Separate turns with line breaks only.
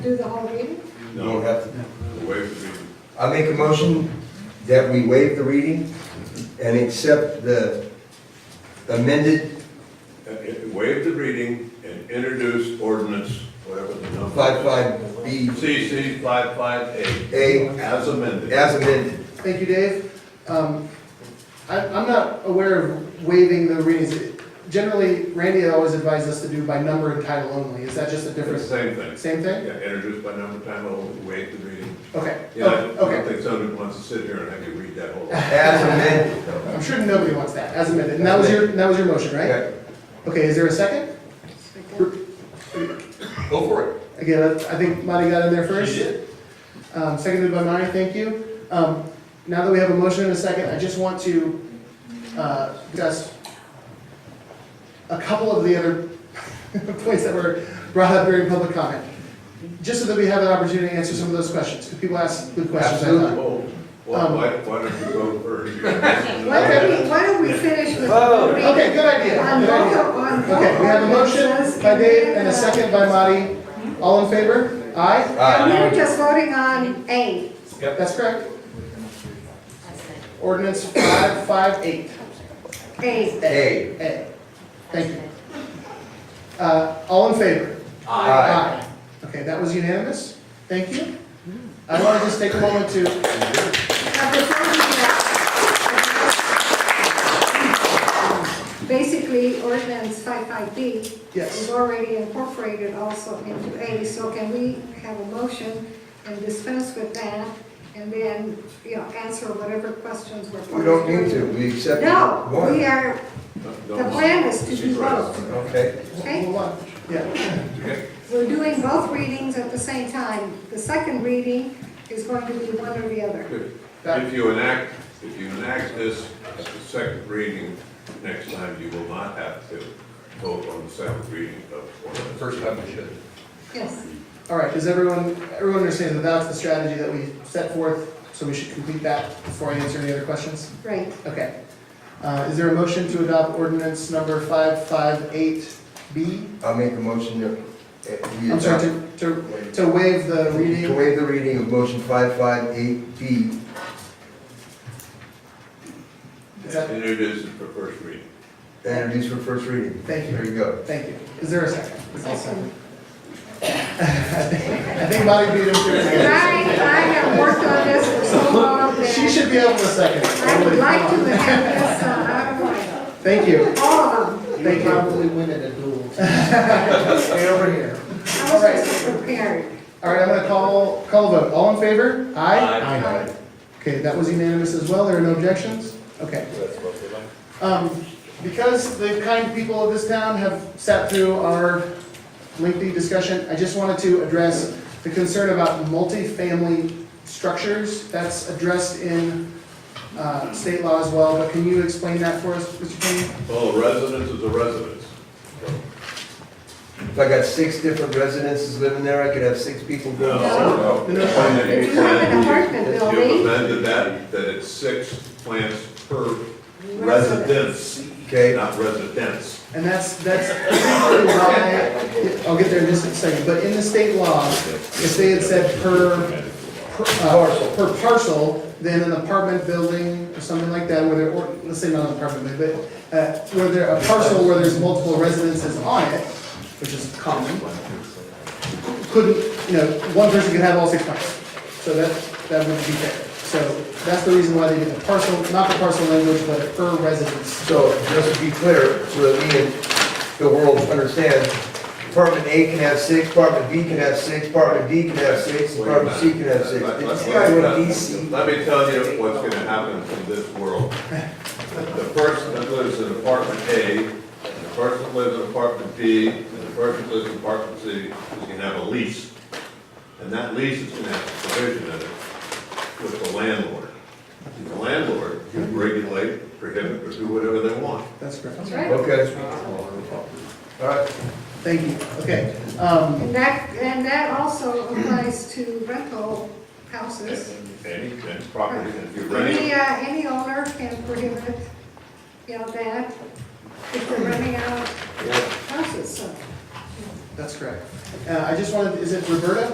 Do the whole reading?
You don't have to,
Waive the reading.
I make a motion that we waive the reading and accept the amended
Uh, uh, Waive the reading and introduce ordinance, whatever the number.
five-five B
CC five-five-eight.
A
As amended.
as amended.
Thank you, Dave. Um, I, I'm not aware of waiving the readings. Generally, Randy always advised us to do by number and title only. Is that just a
It's the
difference?
same thing.
Same
Yeah,
thing?
introduce by number, time, only, waive the reading.
Okay,
Yeah, I
Oh,
don't
okay.
think somebody wants to sit here and have you read that whole.
As amended.
I'm sure nobody wants that, as amended. And that was your, that was your motion, right?
Okay,
Okay, is there a second?
Go for it.
Again, I I think Marty got in there first.
She did.
Um, seconded by Marty, thank you. Um, now that we have a motion and a second, I just want to, uh, discuss a couple of the other points that were brought up during public comment. Just so that we have an opportunity to answer some of those questions, because people ask good questions. I thought.
Absolutely.
Oh, Well,
Um,
why, why don't you go first?
Why don't we, why don't we finish with the
Oh,
reading?
Okay, good idea,
On
good idea.
local- on
Okay, we have a
local ordinances,
motion by
and
Dave
then,
and a
uh,
second by Marty. All in favor? Aye?
And
Aye.
we're just voting on A.
That's correct. Ordinance five, five, eight.
A.
A.
A. Thank you. Uh, all in favor?
Aye.
Okay, that was unanimous. Thank you. I want to just take a moment to,
Now, before we do that, Basically, ordinance 55B
yes.
is already incorporated also into A, so can we have a motion and dispense with that? And then, you know, answer whatever questions were posed.
We don't need to, we accept
No, we
one.
are, the plan is to do both,
Okay,
okay?
Hold on. Yeah,
We're doing both readings at the same time. The second reading is going to be one or the other.
If you enact, if you enact this at the second reading, next time you will not have to vote on the second reading of ordinance.
First time we should.
Yes.
all right, does everyone, everyone understand that that's the strategy that we set forth? So we should complete that before I answer any other questions?
Right.
Okay. Uh, is there a motion to adopt ordinance number five, five, eight, B?
I'll make a motion that. uh, we
I'm sorry,
adopt-
to, to, to waive the
To
reading.
waive the reading of motion five-five-eight B.
Is that-
And it is for first reading.
Introduce for first reading.
Thank you.
There you go.
Thank you. Is there a second?
Second.
I think Bobby beat him to
I, I
it.
have worked on this for so long
She
that
should be able to second. it.
I would like to have this uh, out of my,
Thank you.
all of them.
Thank you.
win at a duel.
Stay over here.
I was just uh, prepared.
All right, I'm gonna call, call vote. All in favor? Aye?
Aye.
Okay, that was unanimous as well. There are no objections? Okay. Um, because the kind people of this town have sat through our lengthy discussion, I just wanted to address the concern about multifamily structures. That's addressed in, uh, state law as well, but can you explain that for us, Mr. King?
Well, a residence is a residence.
If I got six different residences living there, I could have six people going.
No.
No, no.
If you have an apartment
You've
building,
amended that, that it's six plants per residence,
Okay,
not residence.
And that's, that's essentially why, I'll get there in just a second, but in the state law, if they had said per, per, uh, per parcel, then an apartment building or something like that, where there, or, let's say not an apartment, building, but, uh, where there, a parcel where there's multiple residences on it, which is common, couldn't, you know, one person could have all six parcels. So that, that would be fair. So that's the reason why they did the parcel, not the parcel language, but a per residence.
so just to be clear, so that me and the world understand, apartment A can have six, apartment B can have six, apartment D can have six, apartment C can have six.
Let- let-
It's not
let-
doing
let-
DC.
Let me tell you what's gonna happen in this world. The person that lives in apartment A, and the person that lives in apartment B, and the person that lives in apartment C is gonna have a lease. And that lease is gonna have a provision in it with the landlord. And The landlord can regulate, prohibit, or do whatever they want.
That's correct.
that's right.
Okay. All right,
Thank you, okay. Um,
And that, and that also applies to rental houses.
Any, any property, and if you're renting,
Any, uh, any owner can prohibit, you know, that if they're running out of houses, so.
That's correct. Uh, I just wanted, is it Roberta?